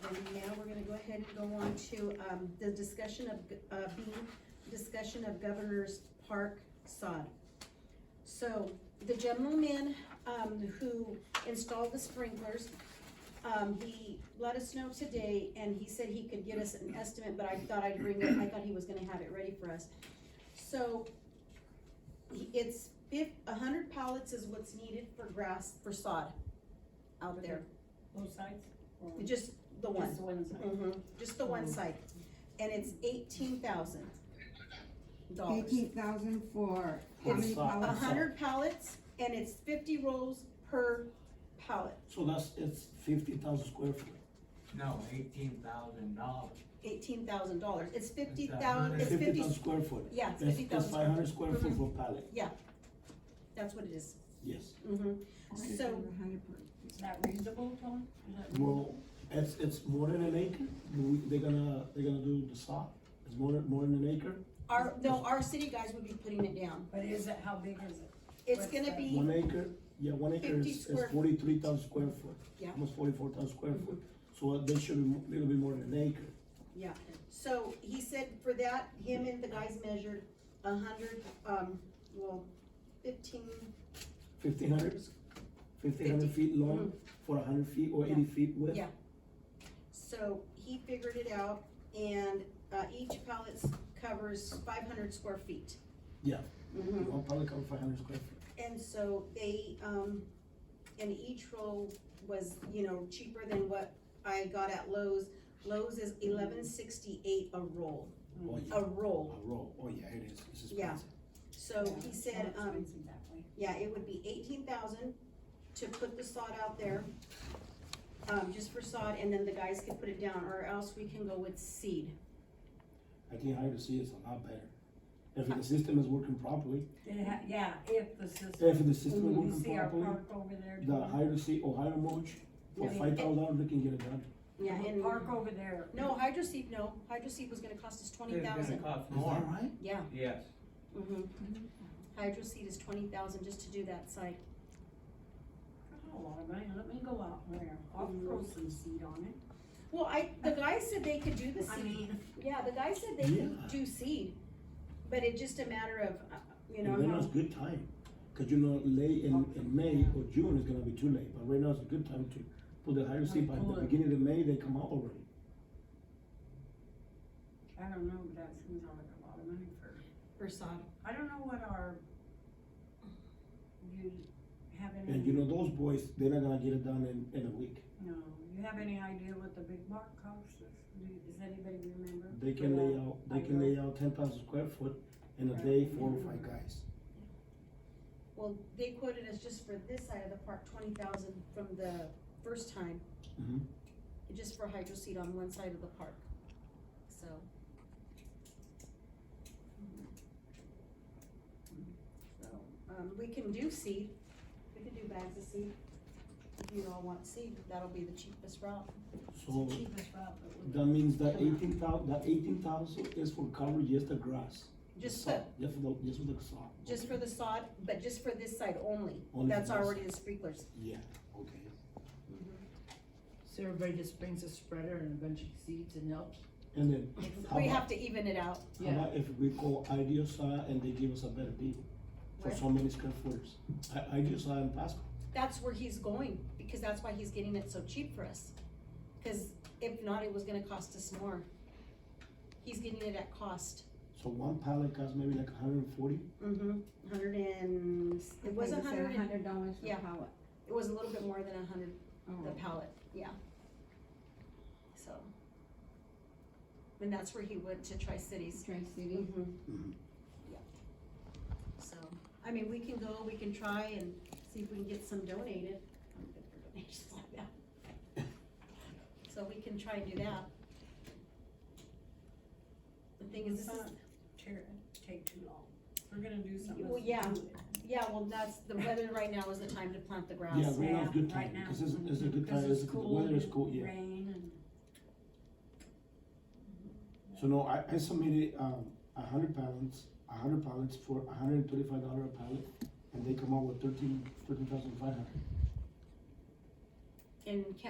Then now we're gonna go ahead and go on to, um, the discussion of, g- uh, B, discussion of Governor's Park sod. So, the gentleman, um, who installed the sprinklers, um, he let us know today, and he said he could get us an estimate, but I thought I'd bring it, I thought he was gonna have it ready for us. So, he- it's fif- a hundred pallets is what's needed for grass, for sod out there, Both sides? or just the one. Just one side? Mhm, just the one site, and it's eighteen thousand dollars. Eighteen thousand for how It's many A pallets? hundred pallets, and it's fifty rolls per pallet, So that's, it's fifty thousand square foot. No, eighteen thousand dollars. eighteen thousand dollars, it's fifty that thou, hundred? it's Fifty fifty, thousand square foot. yeah, it's That's- fifty thousand. Mm-hmm. That's five hundred square foot for pallet, That's what it is, yes. mm-hmm, Okay, so- for a hundred per- Is that reasonable, Tom? Is that reasonable? Well, it's, it's more than an acre, We- they're gonna, they're gonna do the saw, it's more, than- more than an acre. our, no, our city guys would be putting it down, But is it, how big is it? it's What's gonna that? be, One acre, yeah, one acre 50 is, is square- forty-three thousand square foot. Yeah. Mm-hmm. Almost forty-four thousand square foot, so uh, they should be, mo- little bit more than an acre. yeah, so he said for that, him and the guys measured a hundred, um, well, fifteen, Fifteen hundred, fifteen hundred Fifty. Mm-hmm. feet long for a hundred feet or eighty feet width. Yeah. So he figured it out and, uh, each pallet s- covers five hundred square feet. Mm-hmm. Yeah. One pallet cover five hundred square foot. And so they, um, and each roll was, you know, cheaper than what I got at Lowe's. Lowe's is eleven sixty-eight a roll, Oh, yeah, a roll. a row, oh, yeah, it is, it's Mm-hmm. Yeah. expensive. So Yeah, he it's said, more um, expensive that way. yeah, it would be eighteen thousand to put the sod out there. Um, just for sod and then the guys can put it down or else we can go with seed. I think higher to see is a lot better. If the system is working properly, It ha- Yeah, if the if system, the system is you working see our properly, park over there? the higher to see or higher mulch, for Yeah. five thousand dollars, they can get it done. Yeah, and. Park over there. No, hydro seed, no, hydro seed was gonna cost us twenty It's gonna thousand, cost Is that more, right? yeah, yes. mm-hmm. Hydro seed is twenty thousand just to do that site, Got A lot of money, oh, let me go out there, I'll throw some seed on it. well, I, the guy said they could do the I seed, mean, yeah, the guy said they Yeah. could do seed, but it's just a matter of, uh, you know, And right now how. it's good time, cause you know, late in, in May or June is gonna be too late, but right now it's a good time to put the higher seed by the Pull it. beginning of May, they come out already. I don't know, but that seems like a lot of money for, For sod. I don't know what our, you have any? And you know, those boys, they're not gonna get it done in, in a week. No, you have any idea what the big bark cost is? Do- Does anybody remember? They can lay out, they can lay out ten thousand square foot in a day, four or five guys. Well, they quoted us just for this side of the park, twenty thousand from the first time, Mhm. just for hydro seed on one side of the park, so. So, um, we can do seed, we can do bags of seed, if you all want seed, that'll be the cheapest route. So, Cheapest route, but we- that means that eighteen thou, that eighteen thousand is for cover just the grass. the Just sod, for, Just for the, just for the sod. just for the sod, but just for this side only, Only for that's this. already the sprinklers. Yeah, okay. So everybody just brings a spreader and a bunch of seeds and helps? And then, how We about, have to even it out, how about if we call Ideal Sod and they give us a better deal? For Where? so many square footers, I, Ideal Sod and Pasco, that's where he's going, because that's why he's getting it so cheap for us. Cause if not, it was gonna cost us more. He's getting it at cost. so one pallet costs maybe like hundred and forty, Mm-hmm, hundred and, it was a Okay, you said hundred, and- hundred dollars for yeah. pallet. it was a little bit more than a hundred, the Oh. pallet, yeah. So. And that's where he went to Tri-Cities. Tri-City. Mhm. Mm-hmm. Yeah. So, I mean, we can go, we can try and see if we can get some donated. I'm good for donations like that. So we can try and do that. The thing is, this is, Not tear- take too long. We're gonna do something. Well, yeah. yeah, well, that's, the weather right now is the time to plant the grass. yeah, right now it's good Yeah, time, right now. because it's, it's a good Because time, it's it's, the cool weather is cool, yeah. Rain and. So no, I, I submitted, um, a hundred pallets, a hundred pallets for a hundred and thirty-five dollar a pallet, and they come out with thirteen, thirteen thousand five hundred. In Ca-